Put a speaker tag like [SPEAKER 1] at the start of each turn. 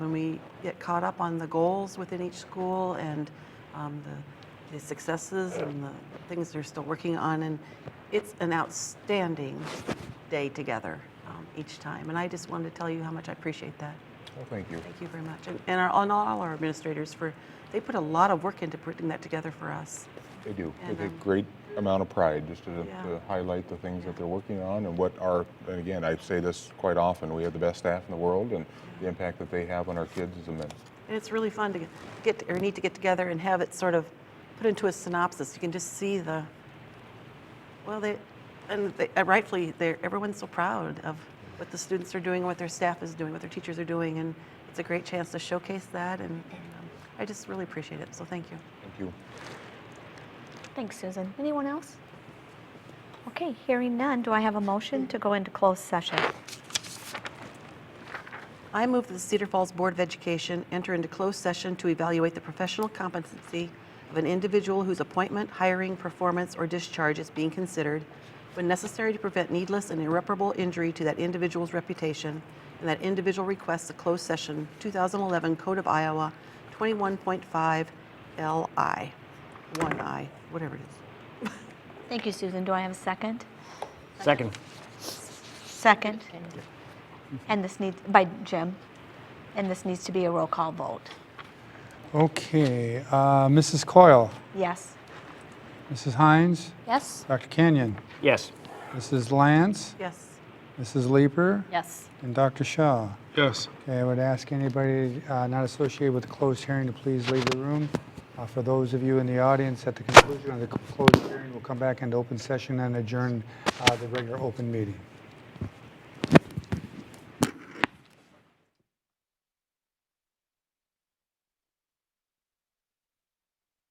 [SPEAKER 1] when we get caught up on the goals within each school and um, the, the successes and the things they're still working on. And it's an outstanding day together um, each time. And I just wanted to tell you how much I appreciate that.
[SPEAKER 2] Well, Oh, thank you.
[SPEAKER 1] Thank you very much. And, and, our, and all our administrators for, they put a lot of work into putting that together for us.
[SPEAKER 2] They do,
[SPEAKER 1] And,
[SPEAKER 2] with a
[SPEAKER 1] um,
[SPEAKER 2] great amount of pride, just to,
[SPEAKER 1] Yeah.
[SPEAKER 2] to highlight the things that they're working on and what our, and again, I say this quite often, we have the best staff in the world and the impact that they have on our kids is immense.
[SPEAKER 1] And it's really fun to get, get or need to get together and have it sort of put into a synopsis. You can just see the well, they and they, and rightfully, they're everyone's so proud of what the students are doing, what their staff is doing, what their teachers are doing, and it's a great chance to showcase that. And, and um, I just really appreciate it. So thank you.
[SPEAKER 2] Thank you.
[SPEAKER 3] Thanks, Susan. Anyone else? Okay, hearing none, do I have a motion to go into closed session?
[SPEAKER 1] I move that the Cedar Falls Board of Education enter into closed session to evaluate the professional competency of an individual whose appointment, hiring, performance, or discharge is being considered when necessary to prevent needless and irreparable injury to that individual's reputation, and that individual requests a closed session 2011 Code of Iowa 21.5 LI, 1I, whatever it is.
[SPEAKER 3] Thank you, Susan. Do I have a second?
[SPEAKER 4] Second.
[SPEAKER 3] Second. And this needs, by Jim, and this needs to be a roll call vote.
[SPEAKER 5] Okay, uh, Mrs. Coyle,
[SPEAKER 3] Yes?
[SPEAKER 5] Mrs. Hines,
[SPEAKER 3] Yes.
[SPEAKER 5] Dr. Kenyon,
[SPEAKER 4] Yes.
[SPEAKER 5] Mrs. Lance,
[SPEAKER 1] Yes.
[SPEAKER 5] Mrs. Leeper,
[SPEAKER 3] Yes.
[SPEAKER 5] and Dr. Shaw.
[SPEAKER 4] Yes.
[SPEAKER 5] Okay, I would ask anybody uh, not associated with the closed hearing to please leave the room. Uh, For those of you in the audience, at the conclusion of the closed hearing, we'll come back into open session and adjourn uh, the regular open meeting.